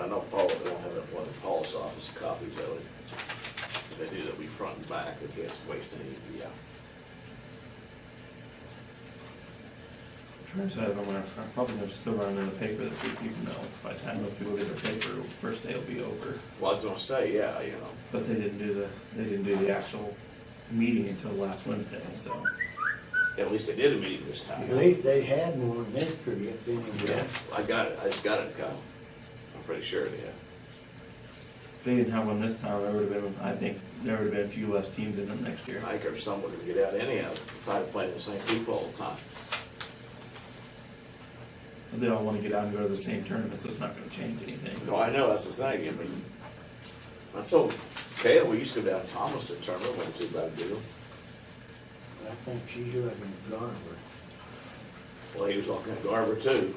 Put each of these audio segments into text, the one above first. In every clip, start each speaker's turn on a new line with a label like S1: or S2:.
S1: I know Paul, they don't have that one in Paul's office, copies of it. If They do that we front and back, they can't waste any, yeah.
S2: Try to have them, when I'm probably gonna still run in the paper this week, even though by the time those people get their paper, first day will be over.
S1: Well, I was gonna say, yeah, you know,
S2: But they didn't do the, they didn't do the actual meeting until last Wednesday, so.
S1: at least they did a meeting this time.
S3: At least they had more mystery if they knew
S1: Yeah,
S3: that.
S1: I got it, I just got it, Kyle. I'm pretty sure they have.
S2: If they didn't have one this time, there would've been, I think, there would've been a few less teams in them next year.
S1: I think if someone could get out anyhow, tired of playing the same people all the time.
S2: They all wanna get out and go to the same tournament, so it's not gonna change anything.
S1: No, I know, that's the thing, I mean, I told Kayla, we used to go down to Thomas to tournament, wasn't too bad a deal.
S3: I think she's living in Garber.
S1: Well, he was walking to Garber too.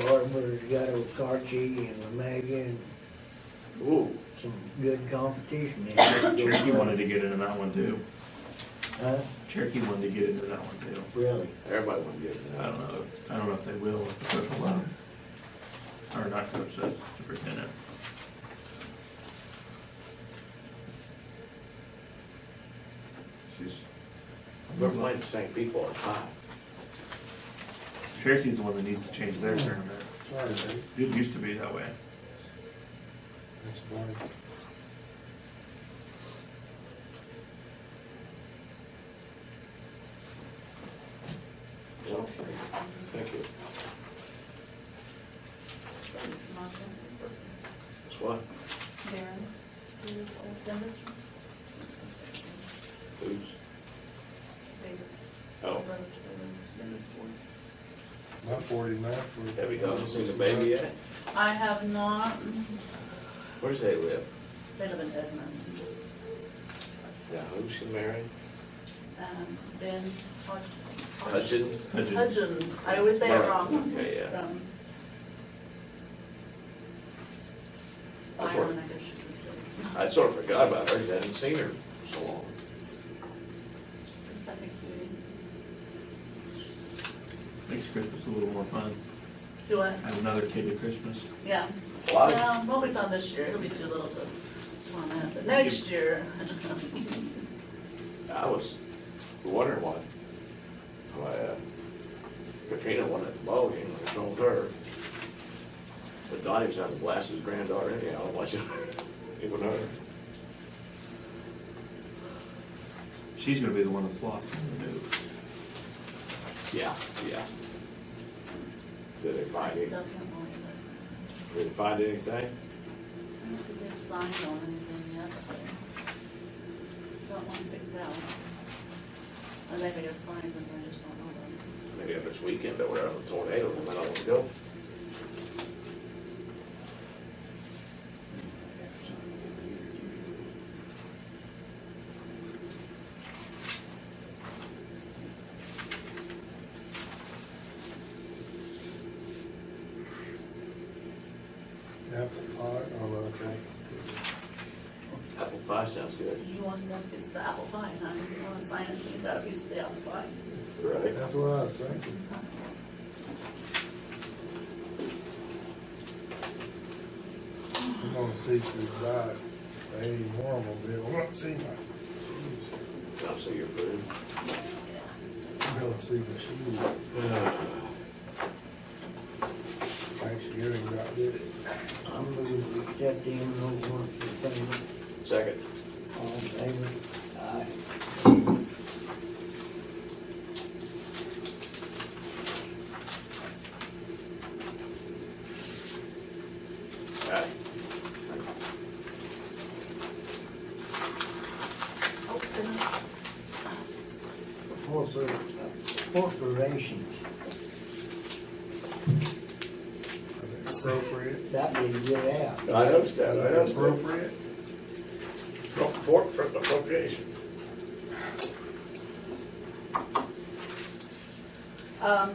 S3: Garber's got Okarchi and Lamega and
S1: Ooh,
S3: some good competition. in there.
S2: Cherokee wanted to get into that one too.
S3: Huh?
S2: Cherokee wanted to get into that one too.
S3: Really?
S1: everybody wanted to get in that.
S2: I don't know, if- I don't know if they will, if the coach will allow them. Or not coach, the superintendent. She's,
S1: We're playing the same people all the time.
S2: Cherokee's the one that needs to change their tournament.
S3: Sorry, mate.
S2: It used to be that way.
S3: That's boring.
S1: Okay, thank you.
S4: Thanks, Malcolm.
S1: That's what,
S4: Darren, who's done this one?
S1: who's,
S4: David's.
S1: oh,
S4: David's done this one.
S5: My forty-nine for.
S1: have you done, seen the baby yet?
S4: I have not,
S1: Where does they live?
S4: they live in Edmond.
S1: Now, who's she married?
S4: Um, Ben Hod-
S1: Hudson?
S2: Hudgens.
S4: Hudgens, I always say it wrong.
S1: Okay, yeah.
S4: From
S1: That's where-
S4: Byron, I guess you could say.
S1: I sort of forgot about her, 'cause I hadn't seen her for so long.
S4: Just, I think we,
S2: Makes Christmas a little more fun.
S4: do I,
S2: Have another kid at Christmas.
S4: yeah.
S1: Why,
S4: Well, what we found this year, it'll be too little to, want that, but next year.
S1: I was wondering why, why uh, Katrina wanted to ball game, I told her. But Donnie was out to blast his granddaughter anyhow, watching, even her.
S2: She's gonna be the one that's lost. when we move.
S1: Yeah, yeah. Did they
S4: I
S1: find
S4: still
S1: it?
S4: can't believe
S1: Did they find anything?
S4: it. I don't think they've signed on anything yet, but they don't want to figure it out. Or they may have signed, but I just don't know them.
S1: Maybe if it's weekend or whatever, tornado, they might not want to go.
S5: Apple pie, oh, well, okay.
S1: Apple pie sounds good.
S4: You want them, it's the apple pie, huh? If you want to sign it, you got a piece of the apple pie.
S1: Right.
S5: That's what I was thinking. I'm gonna see if you buy it. Any more, I'm gonna be able, to see my,
S1: Sounds like your food.
S5: I'm gonna see my shoes. Thanksgiving, I did it.
S3: I'm moving to accept the envelope warrant for payment.
S1: Second.
S3: All in favor? Aye.
S1: Aye.
S4: Oh, goodness.
S3: Corpor- uh, Corporations,
S5: Appropriate.
S3: that didn't get out.
S1: I noticed that, I noticed that.
S5: Appropriate.
S1: From Fort, from the locations.
S4: Um,